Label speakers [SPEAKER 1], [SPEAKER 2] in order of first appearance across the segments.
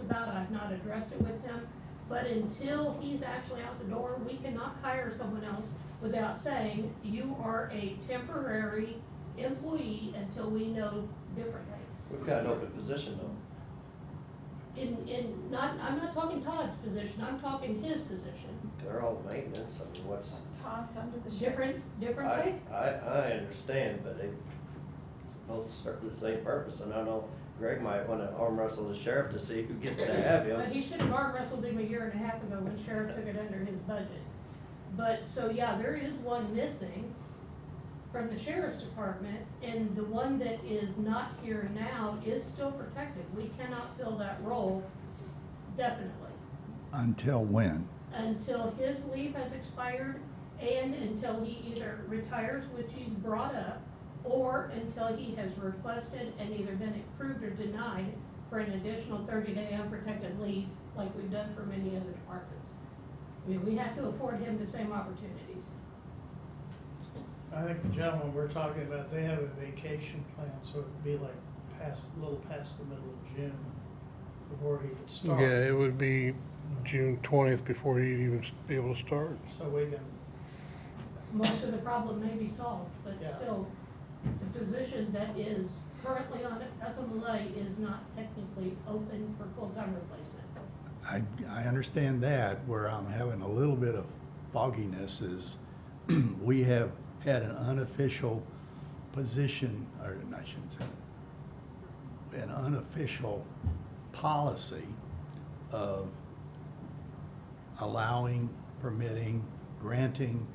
[SPEAKER 1] about, I've not addressed it with him. But until he's actually out the door, we cannot hire someone else without saying, you are a temporary employee until we know differently.
[SPEAKER 2] We've got an open position though.
[SPEAKER 1] In, in, not, I'm not talking Todd's position, I'm talking his position.
[SPEAKER 2] They're all maintenance, I mean, what's,
[SPEAKER 3] Todd's under the sheriff.
[SPEAKER 1] Different, different
[SPEAKER 2] I,
[SPEAKER 1] pay?
[SPEAKER 2] I, I understand, but they both serve the same purpose, and I know Greg might wanna arm wrestle the sheriff to see who gets to have
[SPEAKER 1] But
[SPEAKER 2] him.
[SPEAKER 1] he should have arm wrestled him a year and a half ago when sheriff took it under his budget. But, so yeah, there is one missing from the sheriff's department, and the one that is not here now is still protected. We cannot fill that role definitely.
[SPEAKER 4] Until when?
[SPEAKER 1] until his leave has expired and until he either retires, which he's brought up, or until he has requested and either been approved or denied for an additional thirty-day unprotected leave, like we've done for many other departments. I mean, we have to afford him the same opportunities.
[SPEAKER 5] I think the gentleman we're talking about, they have a vacation plan, so it'd be like past, a little past the middle of June before he could start.
[SPEAKER 6] Yeah, it would be June twentieth before he'd even s- be able to start.
[SPEAKER 5] So we can,
[SPEAKER 1] Most of the problem may be solved, but
[SPEAKER 5] Yeah.
[SPEAKER 1] still, the position that is currently on FMLA is not technically open for full-time replacement.
[SPEAKER 4] I, I understand that, where I'm having a little bit of fogginess is, we have had an unofficial position, or I shouldn't say, an unofficial policy of allowing, permitting, granting,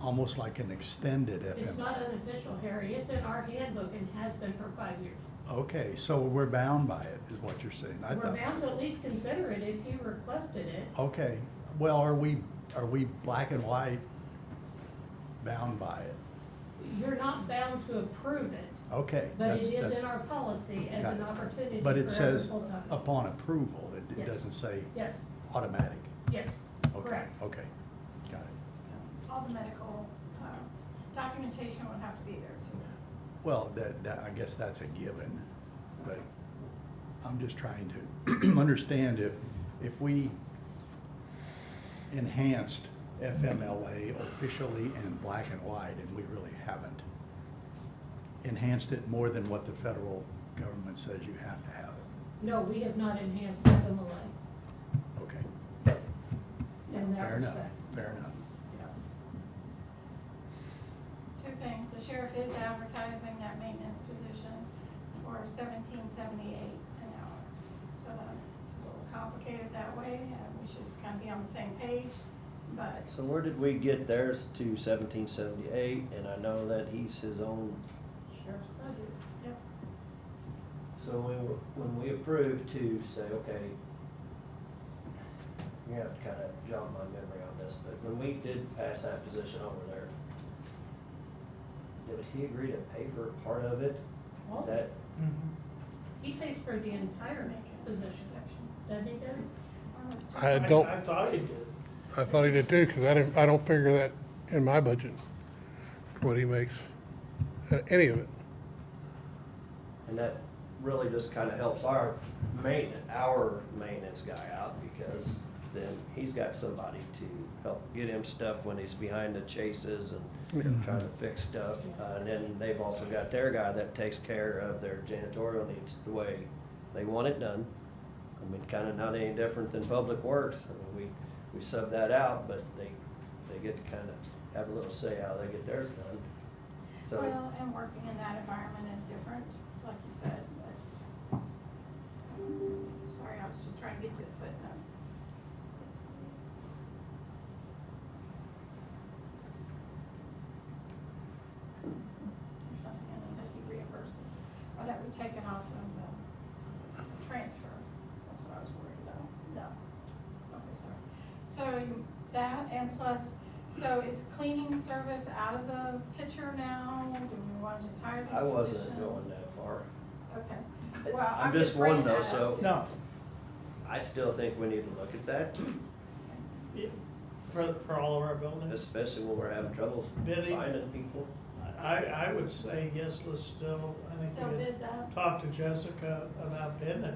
[SPEAKER 4] almost like an extended FMLA.
[SPEAKER 1] It's not unofficial, Harry, it's in our handbook and has been for five years.
[SPEAKER 4] Okay, so we're bound by it, is what you're saying. I
[SPEAKER 1] We're
[SPEAKER 4] thought-
[SPEAKER 1] bound to at least consider it if you requested it.
[SPEAKER 4] Okay, well, are we, are we black and white bound by it?
[SPEAKER 1] You're not bound to approve it,
[SPEAKER 4] Okay.
[SPEAKER 1] but it
[SPEAKER 4] that's-
[SPEAKER 1] is
[SPEAKER 4] that's-
[SPEAKER 1] in our policy as
[SPEAKER 4] Got
[SPEAKER 1] an
[SPEAKER 4] it.
[SPEAKER 1] opportunity for
[SPEAKER 4] But
[SPEAKER 1] every
[SPEAKER 4] it says
[SPEAKER 1] full-time.
[SPEAKER 4] upon approval, it,
[SPEAKER 1] Yes.
[SPEAKER 4] it doesn't say
[SPEAKER 1] Yes,
[SPEAKER 4] automatic.
[SPEAKER 1] yes,
[SPEAKER 4] Okay, Oh.
[SPEAKER 1] correct.
[SPEAKER 4] Okay, got it.
[SPEAKER 3] All the medical, uh, documentation would have to be there too.
[SPEAKER 4] Well, that, that, I guess that's a given, but I'm just trying to understand if, if we enhanced FMLA officially in black and white, and we really haven't, enhanced it more than what the federal government says you have to have it.
[SPEAKER 1] No, we have not enhanced FMLA
[SPEAKER 4] Okay,
[SPEAKER 1] in that
[SPEAKER 4] fair enough,
[SPEAKER 1] respect.
[SPEAKER 4] fair enough.
[SPEAKER 3] Two things, the sheriff is advertising that maintenance position for seventeen seventy-eight an hour. So that's a little complicated that way, and we should kind of be on the same page, but
[SPEAKER 2] So where did we get theirs to seventeen seventy-eight, and I know that he's his own,
[SPEAKER 1] Sheriff's budget.
[SPEAKER 2] so when, we- when we approve to say, okay, you have to kinda jog my memory on this, but when we did pass that position over there, did he agree to pay for part of it? Is
[SPEAKER 1] Well,
[SPEAKER 2] that,
[SPEAKER 5] mm-hmm.
[SPEAKER 1] he pays for the entire
[SPEAKER 3] make it an
[SPEAKER 1] position,
[SPEAKER 3] exception.
[SPEAKER 1] doesn't he, Doug?
[SPEAKER 3] Or was-
[SPEAKER 6] I don't,
[SPEAKER 5] I thought he did.
[SPEAKER 6] I thought he did too, because I didn't, I don't figure that in my budget, what he makes, uh, any of it.
[SPEAKER 2] and that really just kinda helps our maintenance, our maintenance guy out, because then he's got somebody to help get him stuff when he's behind the chases and trying to fix stuff. Uh, and then they've also got their guy that takes care of their janitorial needs the way they want it done. I mean, kinda not any different than Public Works. I mean, we, we sub that out, but they, they get to kinda have a little say how they get theirs done. So,
[SPEAKER 3] Well, and working in that environment is different, like you said, but. Sorry, I was just trying to get to the footnotes. It's- There's nothing in there that he reimburses, or that we take it off of the transfer, that's what I was worried about, no. Okay, sorry. So you- that and plus, so is cleaning service out of the picture now? Do we want to just uh, hire this
[SPEAKER 2] I
[SPEAKER 3] position?
[SPEAKER 2] wasn't going that far.
[SPEAKER 3] Okay. Well, I'm
[SPEAKER 2] just one
[SPEAKER 3] bringing
[SPEAKER 2] though,
[SPEAKER 3] that
[SPEAKER 2] so-
[SPEAKER 3] up to-
[SPEAKER 5] No,
[SPEAKER 2] I still think we need to look at that,
[SPEAKER 5] yeah, for, for all of our buildings.
[SPEAKER 2] especially when we're having trouble
[SPEAKER 5] Bidding.
[SPEAKER 2] finding people.
[SPEAKER 5] I, I would say yes, let's still, I think
[SPEAKER 3] Still
[SPEAKER 5] we
[SPEAKER 3] did that?
[SPEAKER 5] talked to Jessica about bidding it.